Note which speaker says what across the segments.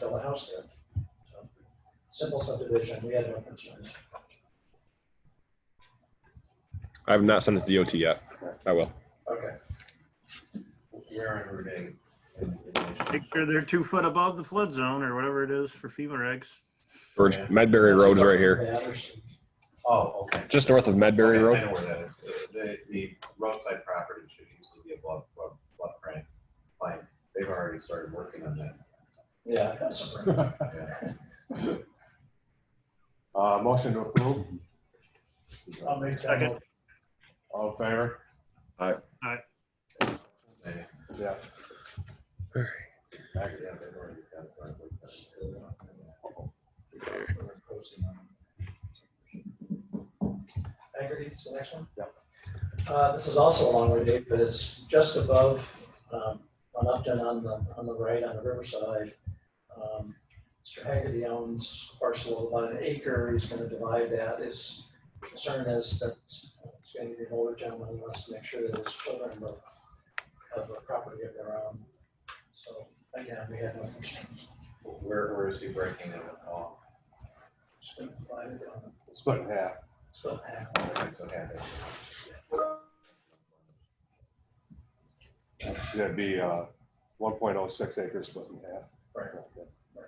Speaker 1: build a house there. So, Simple subdivision, we had no concerns.
Speaker 2: I have not sent it to DOT yet. I will.
Speaker 1: Okay,
Speaker 3: Where in Route eight? in- in-
Speaker 4: Make sure they're two foot above the flood zone or whatever it is for FEMA regs.
Speaker 2: For
Speaker 3: Yeah.
Speaker 2: Medbury Road's right here,
Speaker 1: Yeah, there's-
Speaker 3: Oh, okay.
Speaker 2: just north of Medbury
Speaker 3: Okay, I
Speaker 2: Road.
Speaker 3: know where that is. The, the roadside property should usually be a blood, blood, blood grant. Like, they've already started working on that.
Speaker 1: yeah, that's some.
Speaker 3: Yeah.
Speaker 5: Uh, motion to approve,
Speaker 1: I'll make that
Speaker 4: Second.
Speaker 1: motion.
Speaker 5: all in favor?
Speaker 3: They-
Speaker 5: Yeah.
Speaker 3: actually, yeah, they've already got it, but we've got it.
Speaker 1: We're closing on it. Agri, is the next one?
Speaker 5: Yep.
Speaker 1: Uh, this is also along Route eight, but it's just above, um, on Upton on the, on the right, on the riverside. Um, Mr. Haggerty owns a parcel of about an acre, he's gonna divide that, his concern is that he's gonna be an older gentleman, he wants to make sure that his children have a- have a property of their own. So, again, we have no concerns,
Speaker 3: Where, where is he breaking it off?
Speaker 1: just gonna divide it on,
Speaker 5: Split in half.
Speaker 1: split half.
Speaker 3: So have it.
Speaker 5: That'd be, uh, one point oh six acres split in half.
Speaker 1: Right.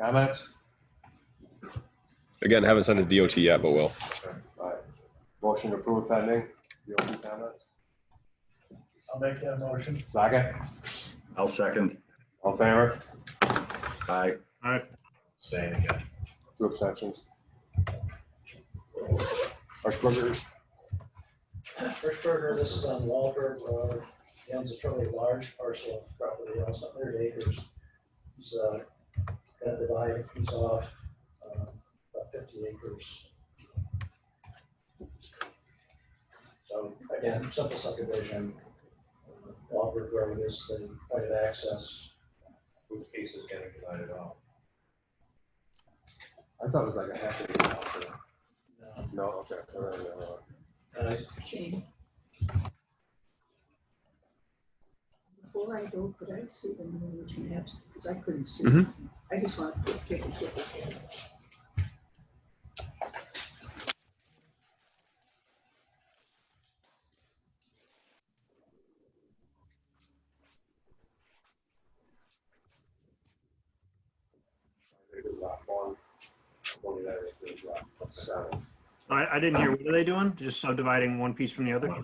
Speaker 5: Comments?
Speaker 2: Again, haven't sent it to DOT yet, but will.
Speaker 5: All right. Motion to approve pending, DOT comments,
Speaker 1: I'll make that motion.
Speaker 5: second,
Speaker 6: I'll second.
Speaker 5: all in favor,
Speaker 6: Aye.
Speaker 3: Same again.
Speaker 5: two abstentions. Hershbergers,
Speaker 1: First Burger, this is on Walberg Road, He owns a fairly large parcel of property, almost hundred acres. He's, uh, gonna divide a piece off, um, about fifty acres. So again, simple subdivision. Walberg Road is the point of access.
Speaker 3: Whose case is getting divided off?
Speaker 5: I thought it was like a half acre. now, so-
Speaker 1: Um,
Speaker 5: No, okay. all right, all right, all right.
Speaker 1: And I
Speaker 7: Before I go, could I see the new region maps? Because I couldn't see.
Speaker 2: Mhm.
Speaker 7: I just want to take a look at it.
Speaker 5: They did lot one, one of that is good, lot seven.
Speaker 4: So I, I didn't hear, what are they doing? Just subdividing one piece from the other?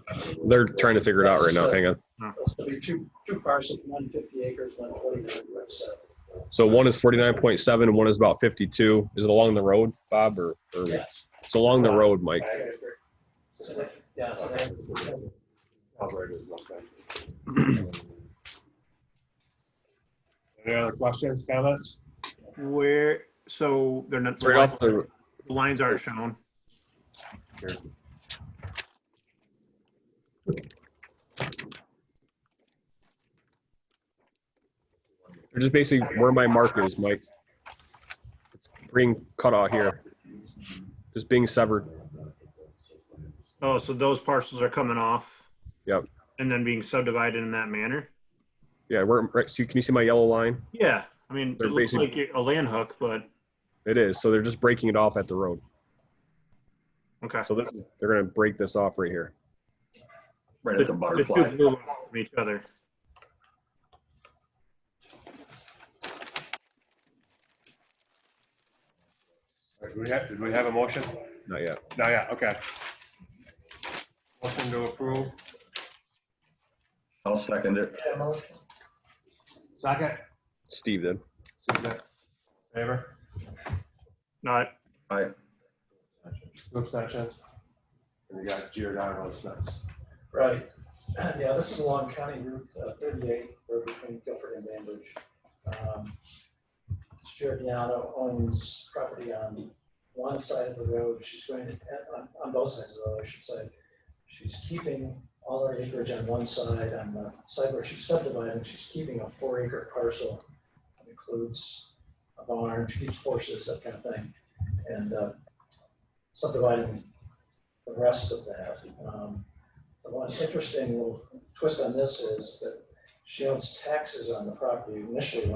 Speaker 2: They're trying to figure it out right now. Hang on.
Speaker 1: It's gonna be two, two parcels, one fifty acres, one forty-nine, so.
Speaker 2: So one is forty-nine point seven and one is about fifty-two. Is it along the road, Bob, or, or,
Speaker 1: Yes.
Speaker 2: it's along the road, Mike?
Speaker 1: It's an- Yeah, it's an-
Speaker 5: Operator is one thing. Any other questions, comments?
Speaker 4: Where, so they're not,
Speaker 2: Right off the,
Speaker 4: the lines aren't shown.
Speaker 2: they're just basically where my mark is, Mike. It's Being cut out here. Just being severed.
Speaker 4: Oh, so those parcels are coming off?
Speaker 2: Yep.
Speaker 4: And then being subdivided in that manner?
Speaker 2: Yeah, where, right, so can you see my yellow line?
Speaker 4: Yeah, I mean,
Speaker 2: They're
Speaker 4: it looks like
Speaker 2: basically-
Speaker 4: a land hook, but,
Speaker 2: It is. So they're just breaking it off at the road.
Speaker 4: okay.
Speaker 2: So this is, they're gonna break this off right here.
Speaker 6: Right at the
Speaker 4: The two
Speaker 6: butterfly.
Speaker 4: blue lines from each other.
Speaker 5: Do we have, did we have a motion?
Speaker 2: Not yet.
Speaker 5: No, yeah, okay. Motion to approve.
Speaker 6: I'll second it.
Speaker 1: Yeah, motion.
Speaker 5: Second.
Speaker 2: Steve did.
Speaker 5: Favor?
Speaker 4: Not,
Speaker 6: Aye.
Speaker 5: Two abstentions. And we got Giordano's next.
Speaker 1: Right. Yeah, this is along County Route uh, 38, road between Guilford and Bainbridge. Um, Giordano owns property on one side of the road. She's going to, on, on both sides of the road, I should say. She's keeping all her acreage on one side, on the side where she's subdividing, she's keeping a four acre parcel. that Includes a barn, she keeps horses, that kind of thing, and uh, subdividing the rest of that. Um, the one interesting little twist on this is that she owns taxes on the property initially